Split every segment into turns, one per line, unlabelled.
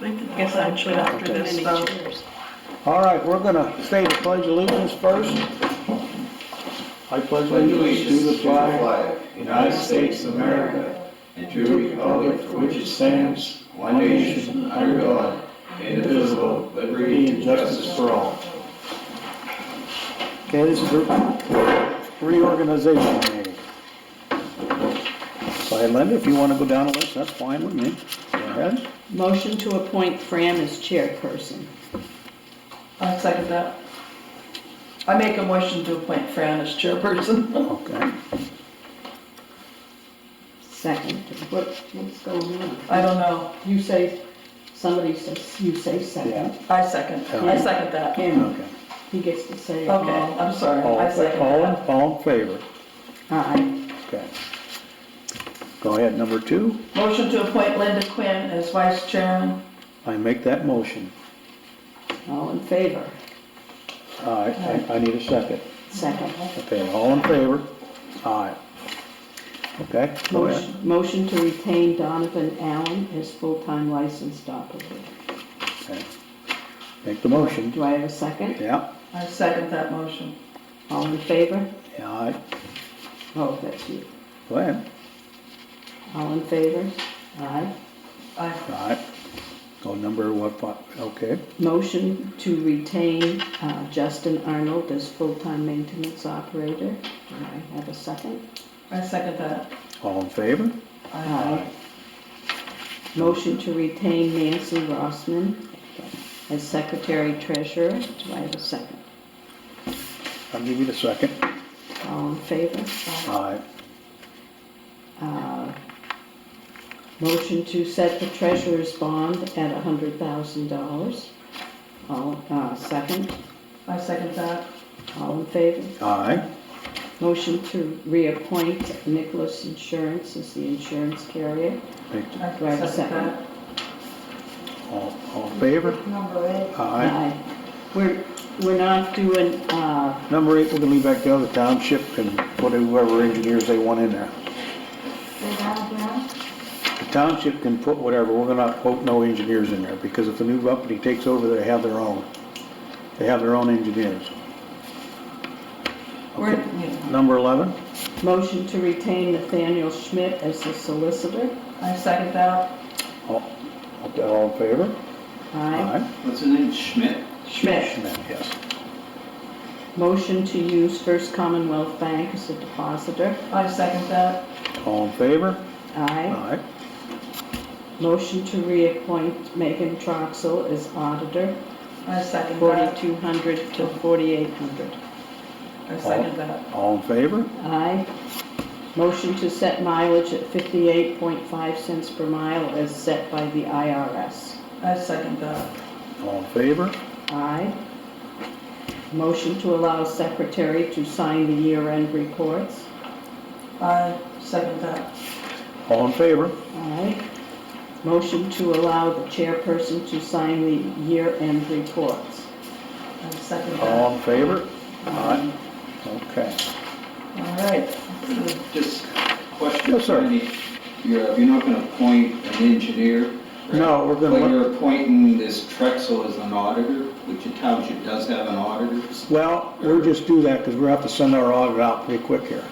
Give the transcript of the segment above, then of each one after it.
I guess I would put after this vote.
All right, we're gonna say the pledge allegiance first. I pledge allegiance to the flag
United States of America, and to the republic for which it stands, one nation, under God, indivisible, with liberty and justice for all.
Okay, this is the reorganization meeting. Go ahead, Linda, if you wanna go down the list, that's fine with me. Go ahead.
Motion to appoint Fran as chairperson.
I'll second that. I make a motion to appoint Fran as chairperson.
Okay.
Second, what, what's going on?
I don't know,
You say, somebody says, you say second,
I second, I second that.
and
Okay.
he gets to say
Okay,
all.
I'm sorry,
All,
I second
all,
that.
in- all in favor?
Aye.
Okay. Go ahead, number two.
Motion to appoint Linda Quinn as vice chairman.
I make that motion.
All in favor?
All right, I, I need a second.
Second.
Okay, all in favor? Aye. Okay, go ahead.
Motion motion to retain Donovan Allen as full-time licensed operator.
Okay. Make the motion.
Do I have a second?
Yeah,
I second that motion.
All in favor?
yeah, aye.
Oh, that's you.
Go ahead.
All in favor? Aye.
I,
All right. Go number what, what- okay,
Motion to retain uh, Justin Arnold as full-time maintenance operator. Do I have a second?
I second that.
all in favor?
I,
Aye. Uh, Motion to retain Nancy Rossman as secretary treasurer. Do I have a second?
I'll give you the second.
All in favor?
Aye.
Uh, Motion to set the treasurer's bond at $100,000. All, uh, second,
I second that.
all in favor?
Aye.
Motion to reappoint Nicholas Insurance as the insurance carrier.
Make,
I
Do I have a
second
second?
that.
all, all in favor?
Number eight.
Aye.
We're, we're not doing, uh,
Number eight, we're gonna leave that to the township and put whoever engineers they want in there. The township can put whatever, we're gonna quote no engineers in there, because if the new company takes over, they have their own. They have their own engineers.
We're,
Okay. Number eleven,
motion to retain Nathaniel Schmidt as the solicitor.
I second that.
all, okay, all in favor?
Aye.
What's his name, Schmidt?
Schmidt,
Schmidt, yes.
Motion to use First Commonwealth Bank as a depositor.
I second that.
All in favor?
Aye.
Aye.
Motion to reappoint Megan Troxel as auditor,
I second that.
4,200 to 4,800.
I second that.
All in favor?
Aye. Motion to set mileage at 58.5 cents per mile as set by the IRS.
I second that.
All in favor?
Aye. Motion to allow secretary to sign the year-end reports.
I second that.
All in favor?
Aye. Motion to allow the chairperson to sign the year-end reports.
I second that. All
All in favor? Aye. Okay.
right.
Just a question.
Yes, sir.
Randy. You're, you're not gonna appoint an engineer? right?
No, we're gonna
But
let-
you're appointing this Trexel as an auditor, which the township does have an auditor.
Well, we'll just do that, because we're gonna have to send our audit out pretty quick here.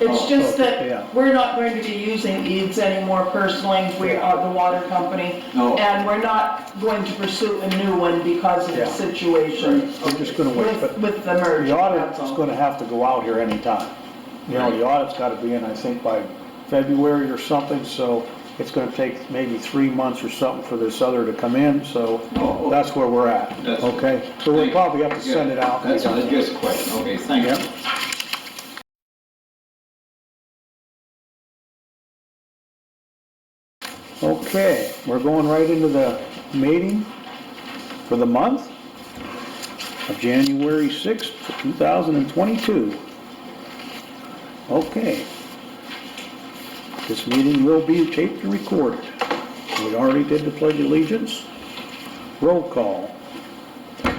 It's just
Oh, yeah.
that we're not going to be using EADS anymore personally, we are the water company.
No.
And we're not going to pursue a new one because of
Yeah.
the situation
We're just gonna wait, but
with, with the merger,
The
that's
audit's
all.
gonna have to go out here anytime. You know, the audit's gotta be in, I think, by February or something, so it's gonna take maybe three months or something for this other to come in, so
Oh, oh.
that's where we're at,
That's-
okay? So we'll
Thank-
probably have to
yeah,
send it out.
That's, that's just a question. Okay, thank
Yep.
you.
Okay, we're going right into the meeting for the month of January 6th, 2022. Okay. This meeting will be taped and recorded. We already did the pledge of allegiance. Roll call.